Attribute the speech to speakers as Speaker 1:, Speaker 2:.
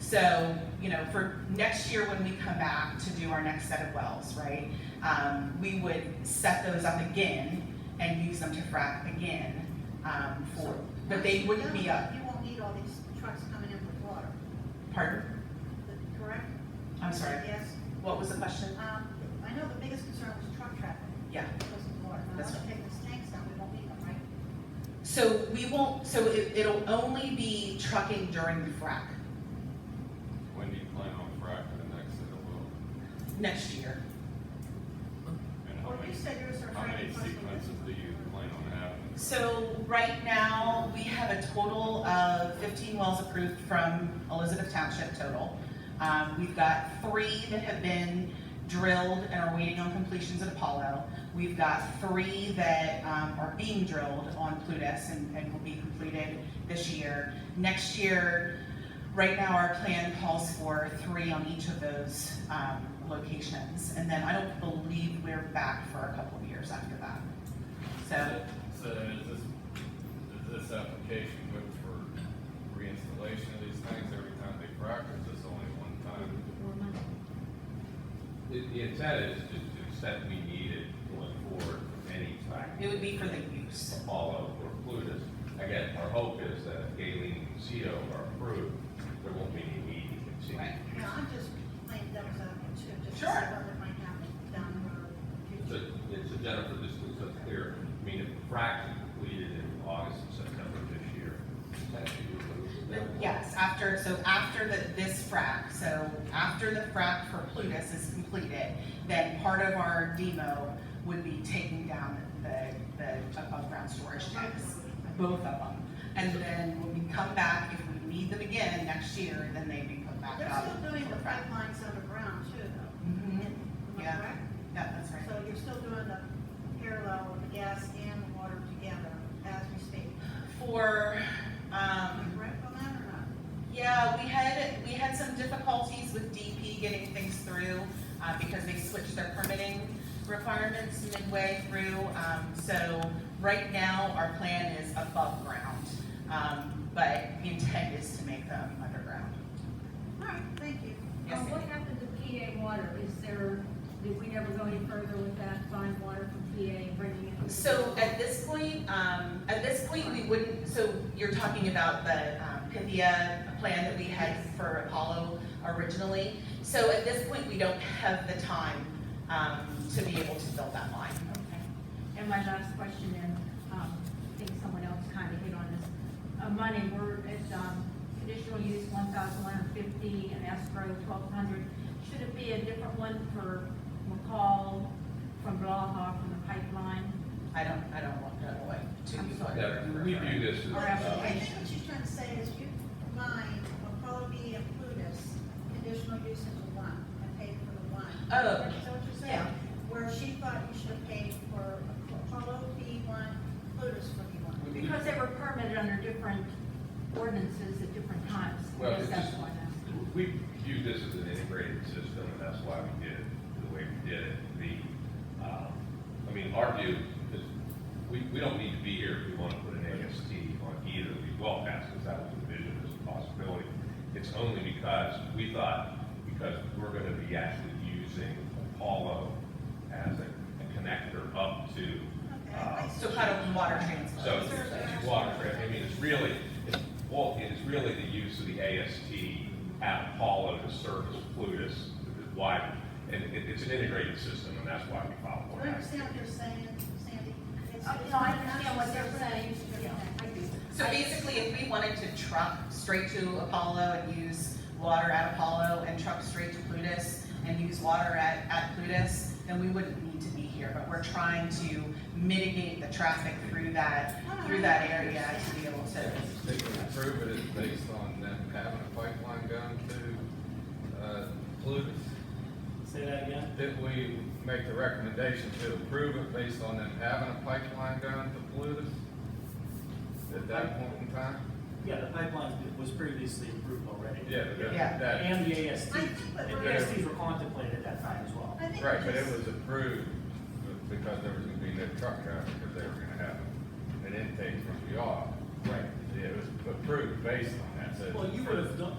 Speaker 1: So, you know, for next year when we come back to do our next set of wells, right? Um, we would set those up again and use them to frack again, um, for, but they wouldn't be up,
Speaker 2: You won't need all these trucks coming in with water,
Speaker 1: pardon?
Speaker 2: but- correct?
Speaker 1: I'm sorry,
Speaker 2: Yes,
Speaker 1: what was the question?
Speaker 2: um, I know the biggest concern was truck traffic.
Speaker 1: Yeah.
Speaker 2: Because of water, now
Speaker 1: That's
Speaker 2: once you take the tanks down, we won't need them, right?
Speaker 1: So we won't, so it, it'll only be trucking during the frack
Speaker 3: When do you plan on frac for the next set of wells?
Speaker 1: next year.
Speaker 3: And how
Speaker 2: Well, you
Speaker 3: many,
Speaker 2: said yours are.
Speaker 3: how many
Speaker 2: frankly close to
Speaker 3: sequences
Speaker 2: this.
Speaker 3: do you plan on having?
Speaker 1: So right now, we have a total of fifteen wells approved from Elizabeth Township total. Um, we've got three that have been drilled and are waiting on completions at Apollo. We've got three that, um, are being drilled on Plutus and, and will be completed this year. Next year, right now, our plan calls for three on each of those, um, locations. And then I don't believe we're back for a couple of years after that. So
Speaker 3: So then is this, is this application good for reinstallation of these things every time they frac, or is this only one time?
Speaker 4: The, the intent is to, to set we need it going forward from any track.
Speaker 1: It would be for the use.
Speaker 4: Apollo or Plutus. Again, our hope is that Galen and Zito are approved, there won't be any need to continue.
Speaker 1: Right.
Speaker 2: Now, I'm just playing devil's advocate too, just to see
Speaker 1: Sure.
Speaker 2: whether it might happen down the road. in
Speaker 4: So,
Speaker 2: the future.
Speaker 4: and so Jennifer, this was so clear, I mean, if the frac is completed in August and September of this year, is that you approved?
Speaker 1: Yes, after, so after the, this frac, so after the frac for Plutus is completed, then part of our demo would be taking down the, the above ground storage tanks, both of them. And then when we come back, if we need them again next year, then they'd be put back
Speaker 2: They're
Speaker 1: up.
Speaker 2: still doing the
Speaker 1: for frac.
Speaker 2: pipelines underground too, though.
Speaker 1: Mhm.
Speaker 2: Am I
Speaker 1: Yeah.
Speaker 2: correct?
Speaker 1: Yeah, that's right.
Speaker 2: So you're still doing the parallel of the gas and the water together as we speak.
Speaker 1: For,
Speaker 2: Am I
Speaker 1: um,
Speaker 2: correct on that or not?
Speaker 1: Yeah, we had, we had some difficulties with DP getting things through, uh, because they switched their permitting requirements midway through. Um, so right now, our plan is above ground, um, but the intent is to make them underground.
Speaker 2: All right, thank you.
Speaker 1: Yes,
Speaker 5: Um,
Speaker 1: ma'am.
Speaker 5: what happened to PA water? Is there, did we never go any further with that fine water from PA and bringing it? to the-
Speaker 1: So at this point, um, at this point, we wouldn't, so you're talking about the, um, Pythia plan that we had for Apollo originally. So at this point, we don't have the time, um, to be able to build that line.
Speaker 5: Okay. And my last question, and, um, I think someone else kind of hit on this. Uh, money, we're at, um, conditional use, one thousand one hundred fifty, and escrow, twelve hundred. Should it be a different one for McCall, from Blaha, from the pipeline?
Speaker 1: I don't, I don't want to know what to
Speaker 5: I'm
Speaker 1: do.
Speaker 5: sorry.
Speaker 4: Yeah, we view this as.
Speaker 5: Our
Speaker 4: uh,
Speaker 2: I think what she's trying to say is you combine Wacology and Plutus conditional use into one and paid for the one.
Speaker 1: Oh.
Speaker 2: Is that what you're saying?
Speaker 1: Yeah.
Speaker 2: Where she thought you should have paid for Apollo B one, Plutus for B one.
Speaker 5: Because they were permitted under different ordinances at different times. I
Speaker 4: Well,
Speaker 5: guess
Speaker 4: it's
Speaker 5: that's
Speaker 4: just-
Speaker 5: why I'm asking.
Speaker 4: We view this as an integrated system, and that's why we did it the way we did it. The, um, I mean, our view is, we, we don't need to be here if we want to put an AST on either of these well paths, because that was envisioned as a possibility. It's only because, we thought, because we're gonna be actually using Apollo as a a connector up to,
Speaker 2: Okay,
Speaker 4: uh,
Speaker 2: I
Speaker 1: So how do we water transfer?
Speaker 4: so it's- it's water trip, I mean, it's really, it's, well, it's really the use of the AST at Apollo to service Plutus, which is why, and it, it's an integrated system, and that's why we follow
Speaker 2: Do
Speaker 4: what
Speaker 2: you
Speaker 4: happens.
Speaker 2: understand what you're saying, Sandy? It's-
Speaker 5: Uh,
Speaker 2: it's
Speaker 5: No, I
Speaker 2: not
Speaker 5: understand what they're
Speaker 2: separate,
Speaker 5: saying,
Speaker 2: it's just
Speaker 5: yeah,
Speaker 2: different.
Speaker 5: I do.
Speaker 1: So basically, if we wanted to truck straight to Apollo and use water at Apollo and truck straight to Plutus and use water at, at Plutus, then we wouldn't need to be here, but we're trying to mitigate the traffic through that, through that area to be able to.
Speaker 3: They can approve it is based on them having a pipeline going to, uh, Plutus.
Speaker 6: Say that again?
Speaker 3: Did we make the recommendation to approve it based on them having a pipeline going to Plutus? At that point in time?
Speaker 6: Yeah, the pipeline was previously approved already.
Speaker 3: Yeah, but
Speaker 1: Yeah.
Speaker 3: that, that,
Speaker 6: And the AST,
Speaker 2: I think what
Speaker 6: the
Speaker 2: we're-
Speaker 6: ASTs were contemplated at that time as well.
Speaker 2: I think
Speaker 3: right, but it
Speaker 2: just-
Speaker 3: was approved because there was gonna be no truck traffic, because they were gonna have an intake from the yard. Right. It was approved based on that, so.
Speaker 6: Well, you would have done,